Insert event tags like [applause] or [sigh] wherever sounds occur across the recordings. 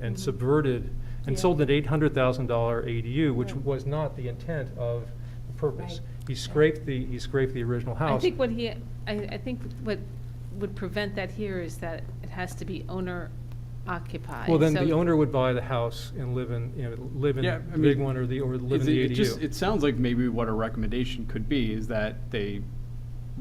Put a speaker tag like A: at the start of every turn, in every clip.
A: and subverted and
B: Yeah.
A: sold an eight hundred thousand dollar ADU, which
B: Right.
A: was not the intent of the purpose.
B: Right.
A: He scraped the, he scraped the original house.
B: I think what he, I, I think what would prevent that here is that it has to be owner occupied.
A: Well, then
B: so-
A: the owner would buy the house and live in, you know, live in
C: Yeah,
A: the
C: I
A: big
C: mean,
A: one or the, or live in
C: It's-
A: the
C: it just-
A: ADU.
C: It sounds like maybe what a recommendation could be is that they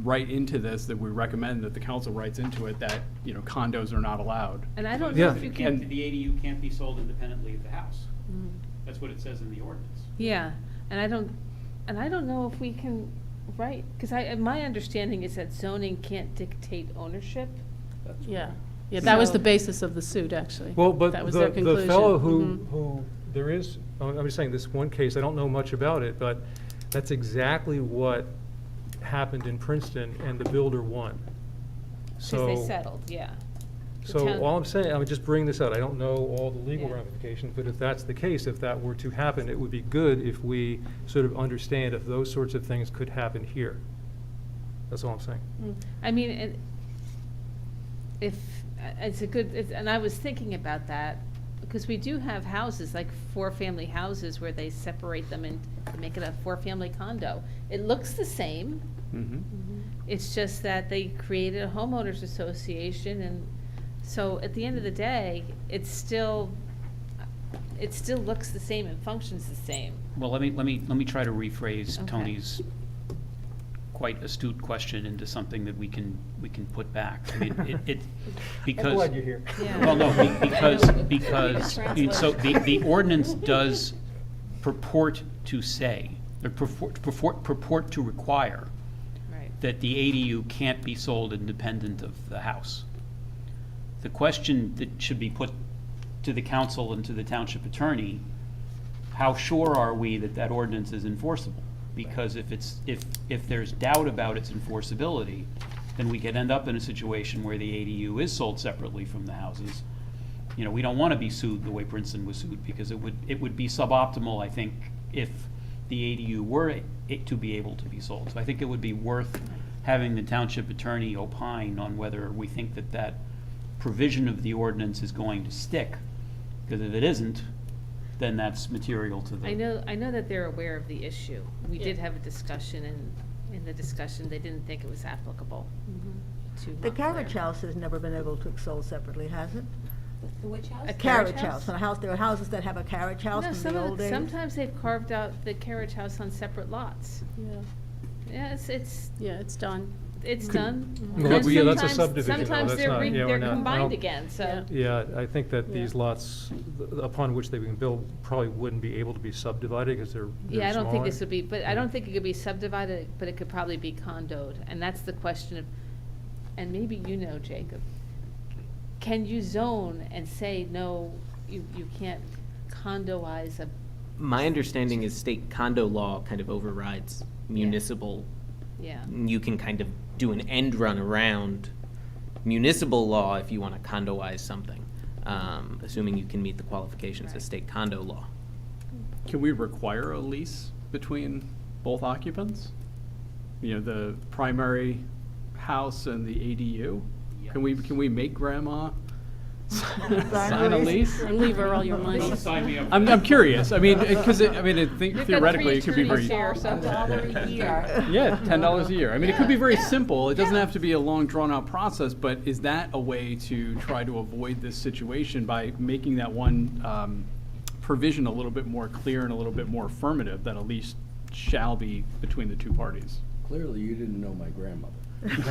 C: write into this, that we recommend that the council writes into it that, you know, condos are not allowed.
B: And I don't
A: Yeah.
B: know if you
D: It
B: can,
D: can't, the ADU can't be sold independently of the house.
B: Mm.
D: That's what it says in the ordinance.
B: yeah, and I don't, and I don't know if we can, right, because I, my understanding is that zoning can't dictate ownership.
E: Yeah, yeah, that was the
B: So-
E: basis of the suit, actually.
A: Well, but
E: That was
A: the,
E: their
A: the fellow who,
B: Mm-hmm.
E: conclusion. Mhm.
A: who, there is, I'm I'm just saying, this one case, I don't know much about it, but that's exactly what happened in Princeton and the builder won.
B: Because
A: So.
B: they settled, yeah. The town-
A: So all I'm saying, I'm just bringing this out, I don't know all the legal
B: Yeah.
A: ramifications, but if that's the case, if that were to happen, it would be good if we sort of understand if those sorts of things could happen here. That's all I'm saying.
B: Mm, I mean, it, if, uh, it's a good, it's, and I was thinking about that, because we do have houses, like four-family houses, where they separate them and make it a four-family condo. It looks the same, it's just that they created a homeowners association, and so at the end of the day, it's still, it still looks the same and functions the same.
D: Well, let me, let me, let me try to rephrase
B: Okay.
D: Tony's quite astute question into something that we can, we can put back. I mean, it, [laughs]
B: [laughs]
D: it, because.
A: I'm glad you're here.
B: Yeah.
D: Well, no, be- because,
B: [laughs] I know.
D: because,
B: Need a
D: I mean, so the, the
B: translation.
D: ordinance does purport to say, or purport, purport, purport to require
B: Right.
D: that the ADU can't be sold independent of the house. The question that should be put to the council and to the township attorney, how sure are we that that ordinance is enforceable? Because if it's, if, if there's doubt about its enforceability, then we could end up in a situation where the ADU is sold separately from the houses. You know, we don't want to be sued the way Princeton was sued, because it would, it would be suboptimal, I think, if the ADU were it to be able to be sold. So I think it would be worth having the township attorney opine on whether we think that that provision of the ordinance is going to stick. Because if it isn't, then that's material to the.
B: I know, I know that they're aware of the issue. We did
E: Yeah.
B: have a discussion, and in the discussion, they didn't think it was applicable to.
F: The
B: Montclair.
F: carriage house has never been able to be sold separately, has it?
G: Which house?
B: A
F: Carriage house, and a house, there are houses that have a carriage house
B: No,
F: from
B: some
F: the
B: of,
F: old
B: the-
D: [laughs]
F: days.
B: sometimes [laughs] they've carved out the carriage house on separate lots.
E: Yeah,
B: Yeah, it's, it's,
E: yeah, it's done.
B: it's done.
A: Well,
B: And
A: that's- yeah, that's a
B: sometimes-
A: subdivision, though.
B: Sometimes
A: That's
B: they're,
A: not-
B: re-
A: yeah, we're
B: they're
A: not- I
B: combined
A: don't-
B: again, so.
E: Yeah.
A: Yeah, I think that these
E: Yeah.
A: lots th- upon which they've been built probably wouldn't be able to be subdivided because they're, they're
B: Yeah, I don't think
A: smaller.
B: this would be, but I don't think it could be subdivided, but it could probably be condoed, and that's the question of, and maybe you know, Jacob. Can you zone and say, no, you, you can't condoize a,
H: My understanding is state condo law kind of overrides municipal.
B: yeah,
H: You can kind of do an end run around municipal law if you want to condoize something, um, assuming you can meet the qualifications
B: Right.
H: of state condo law.
C: Can we require a lease between both occupants? You know, the primary house and the ADU? Can we, can we make grandma sign a lease?
E: And leave her all your
D: [laughs]
E: money.
D: Don't sign me up.
C: I'm, I'm curious. I mean, because, I mean, I think
B: You've got
C: theoretically,
B: three
C: it could be very.
B: attorneys here, so-
G: Dollar a
C: [laughs]
G: year.
C: Yeah, ten dollars a year. I mean, it could be very
B: Yeah.
C: simple. It doesn't
B: Yeah.
C: have to be a long, drawn-out process, but is that a way to try to avoid this situation by making that one um, provision a little bit more clear and a little bit more affirmative, that a lease shall be between the two parties?
I: Clearly, you didn't know my grandmother.
C: [laughs]
H: [laughs]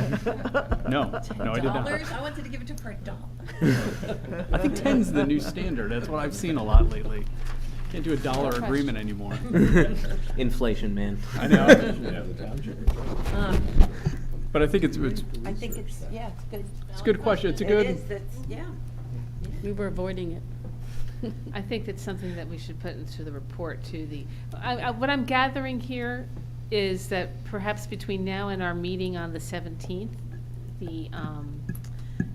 C: No, no, I did not.
G: Dollars, I wanted to give it to her for a
F: [laughs]
G: dollar.
C: I think ten's the new standard. That's what I've seen a lot lately. Can't do a dollar
B: question.
C: agreement anymore.
H: [laughs] Inflation, man.
C: I know.
G: Um,
C: But I think it's, it's,
G: I think it's, yeah, it's good.
C: it's a good question. It's a good.
G: It is, it's, yeah.
E: We were avoiding it.
B: I think that's something that we should put into the report to the, I, I, what I'm gathering here is that perhaps between now and our meeting on the seventeenth, the, um,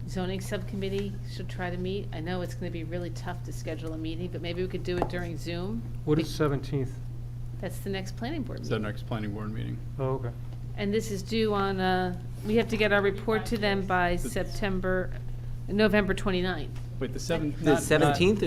B: zoning subcommittee should try to meet. I know it's gonna be really tough to schedule a meeting, but maybe we could do it during Zoom.
A: What is Seventeenth?
B: That's the next planning board
C: It's the
B: meeting.
C: next planning board meeting.
A: Oh, okay.
B: And this is due on, uh, we have to get our report to them by September, November twenty-ninth.
C: Wait, the seventh.
H: [laughs] The
C: not- not-
H: seventeenth